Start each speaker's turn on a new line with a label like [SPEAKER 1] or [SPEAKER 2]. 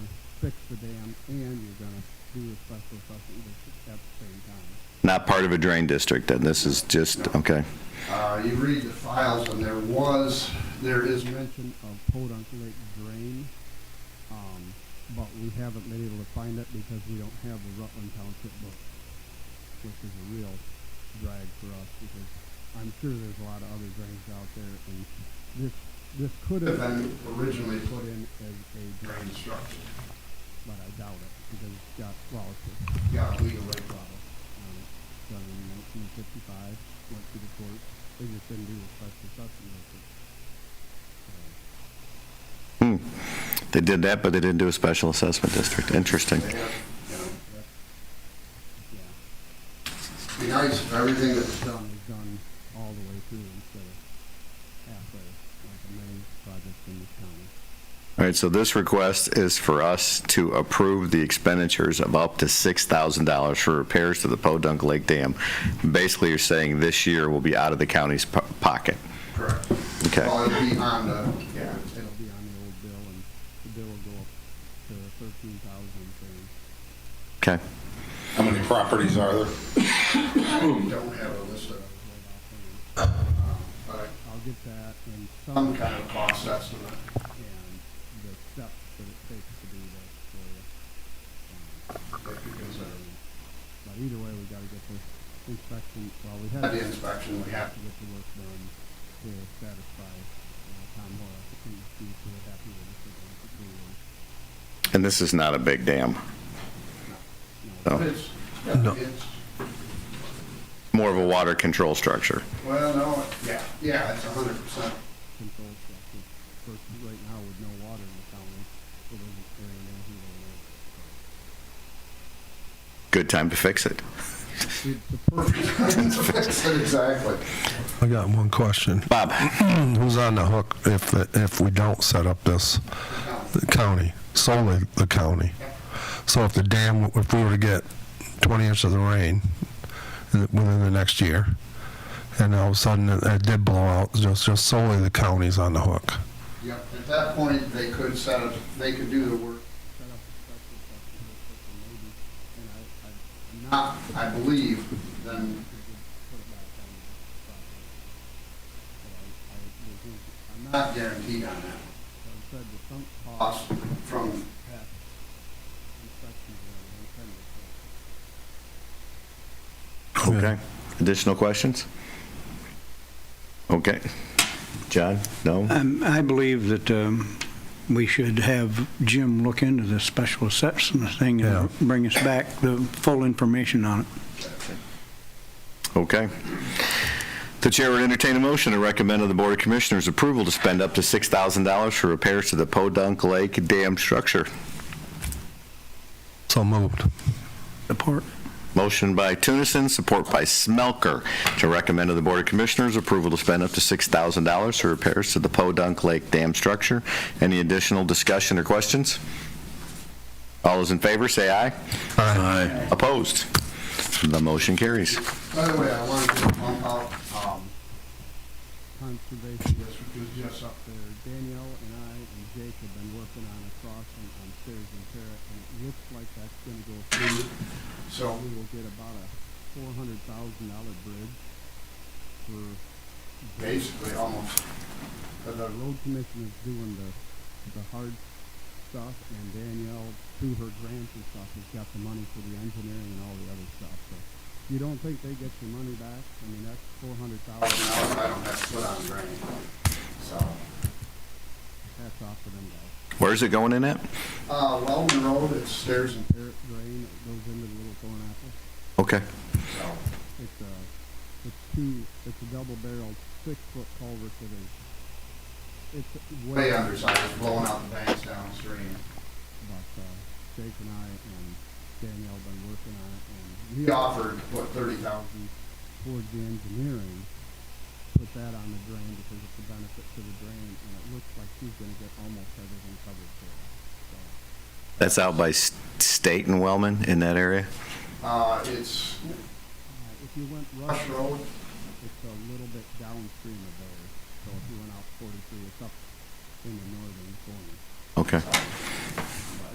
[SPEAKER 1] fix the dam and you're gonna do a special assessment district at the same time.
[SPEAKER 2] Not part of a drain district, then this is just, okay.
[SPEAKER 1] Uh, you read the files and there was, there is mention of Podunk Lake drain. Um, but we haven't been able to find it because we don't have the Rutland Township book, which is a real drag for us because I'm sure there's a lot of other drains out there and this, this could have been originally put in as a drain structure. But I doubt it because it's got, well, it's a. Got legal way problem. Um, done in nineteen fifty-five, went to the court, they just didn't do a special assessment. of it. So-
[SPEAKER 2] Hmm. They did that, but they didn't do a special assessment district. Interesting.
[SPEAKER 3] They have, you know,
[SPEAKER 1] Yeah,
[SPEAKER 3] Be nice if everything that's
[SPEAKER 1] it's done, it's done all the way through instead of halfway, like many projects in this county.
[SPEAKER 2] All right, so this request is for us to approve the expenditures of up to $6,000 for repairs to the Podunk Lake Dam. Basically, you're saying this year will be out of the county's po- pocket.
[SPEAKER 3] correct.
[SPEAKER 2] Okay.
[SPEAKER 3] Well, it'll be on the, yeah,
[SPEAKER 1] It'll be on the old bill, and the bill will go up to thirteen thousand thirty.
[SPEAKER 2] Okay.
[SPEAKER 4] How many properties are there?
[SPEAKER 3] I don't have a list of, um, but
[SPEAKER 1] I'll get that and some,
[SPEAKER 3] some kind of cost estimate.
[SPEAKER 1] and the steps that it takes to do that for you. Um,
[SPEAKER 3] That you can send.
[SPEAKER 1] But either way, we gotta get this inspection, well, we
[SPEAKER 3] At
[SPEAKER 1] have.
[SPEAKER 3] the inspection, we have
[SPEAKER 1] to get the work done to satisfy uh, Tom Horace, who seems to be happy with the situation.
[SPEAKER 2] And this is not a big dam,
[SPEAKER 3] to,
[SPEAKER 2] No.
[SPEAKER 3] but it's, yeah, it's,
[SPEAKER 2] more of a water control structure.
[SPEAKER 3] well, no, yeah, yeah, it's a hundred percent.
[SPEAKER 1] Control structure. Of course, right now with no water in the county, it isn't very easy to work.
[SPEAKER 2] Good time to fix it.
[SPEAKER 1] It's the perfect,
[SPEAKER 3] Exactly.
[SPEAKER 5] I got one question.
[SPEAKER 2] Bob?
[SPEAKER 5] Who's on the hook if, if we don't set up this? The county, solely the county. So if the dam, if we were to get 20 inches of rain in- within the next year, and all of a sudden it- it did blow out, just, just solely the county's on the hook.
[SPEAKER 3] Yep, at that point, they could set up, they could do the work.
[SPEAKER 1] set up a special section of the system maybe, and I, I, I'm not
[SPEAKER 3] Not, I believe,
[SPEAKER 1] sure
[SPEAKER 3] then,
[SPEAKER 1] to put it back on the property. But I, I, there's no- I'm not,
[SPEAKER 3] not guaranteed on
[SPEAKER 1] I
[SPEAKER 3] that.
[SPEAKER 1] said the sunk cost
[SPEAKER 3] Cost from
[SPEAKER 1] past inspections are untenable.
[SPEAKER 2] Okay. Additional questions? Okay. John? No?
[SPEAKER 6] Um, I believe that um, we should have Jim look into the special assessment thing
[SPEAKER 5] Yeah.
[SPEAKER 6] and bring us back the full information on it.
[SPEAKER 2] Okay. The chair would entertain a motion to recommend to the Board of Commissioners approval to spend up to $6,000 for repairs to the Podunk Lake Dam structure.
[SPEAKER 5] So moved.
[SPEAKER 6] Support.
[SPEAKER 2] Motion by Tunison, support by Smelker, to recommend to the Board of Commissioners approval to spend up to $6,000 for repairs to the Podunk Lake Dam structure. Any additional discussion or questions? All those in favor, say aye. Aye. Opposed? The motion carries.
[SPEAKER 3] By the way, I wanted to pump out, um,
[SPEAKER 1] Conservation
[SPEAKER 3] this was just
[SPEAKER 1] up
[SPEAKER 3] up
[SPEAKER 1] there. Danielle and I and Jake have been working on a crossing on Stairs and Terrace, and it looks like that's gonna go through.
[SPEAKER 3] So,
[SPEAKER 1] We will get about a four hundred thousand dollar bridge for,
[SPEAKER 3] basically, almost, for
[SPEAKER 1] the
[SPEAKER 3] the
[SPEAKER 1] road commission is doing the, the hard stuff, and Danielle, through her grants and stuff, has got the money for the engineering and all the other stuff, so. You don't think they get your money back? I mean, that's four hundred thousand,
[SPEAKER 3] thousand dollars, I don't have to put on drain. So,
[SPEAKER 1] that's off to them guys.
[SPEAKER 2] Where's it going in at?
[SPEAKER 3] uh, Weldon Road, it's stairs and,
[SPEAKER 1] Terrace drain, it goes into the little thorn apple.
[SPEAKER 2] Okay.
[SPEAKER 3] so,
[SPEAKER 1] It's a, it's two, it's a double barreled six foot culvert that is, it's way
[SPEAKER 3] way
[SPEAKER 1] under,
[SPEAKER 3] undersized, blowing out the banks downstream.
[SPEAKER 1] but, uh, Jake and I and Danielle been working on it and we
[SPEAKER 3] He offered, what, thirty thousand?
[SPEAKER 1] thousand towards the engineering, put that on the drain because it's a benefit to the drain and it looks like he's gonna get almost everything covered for us, so.
[SPEAKER 2] That's out by S- State and Wellman in that area?
[SPEAKER 3] Uh, it's
[SPEAKER 1] Uh, If you went rush,
[SPEAKER 3] Rush Road,
[SPEAKER 1] it's a little bit downstream of there, so if you went out forty-three, it's up in the northern corner.
[SPEAKER 2] Okay.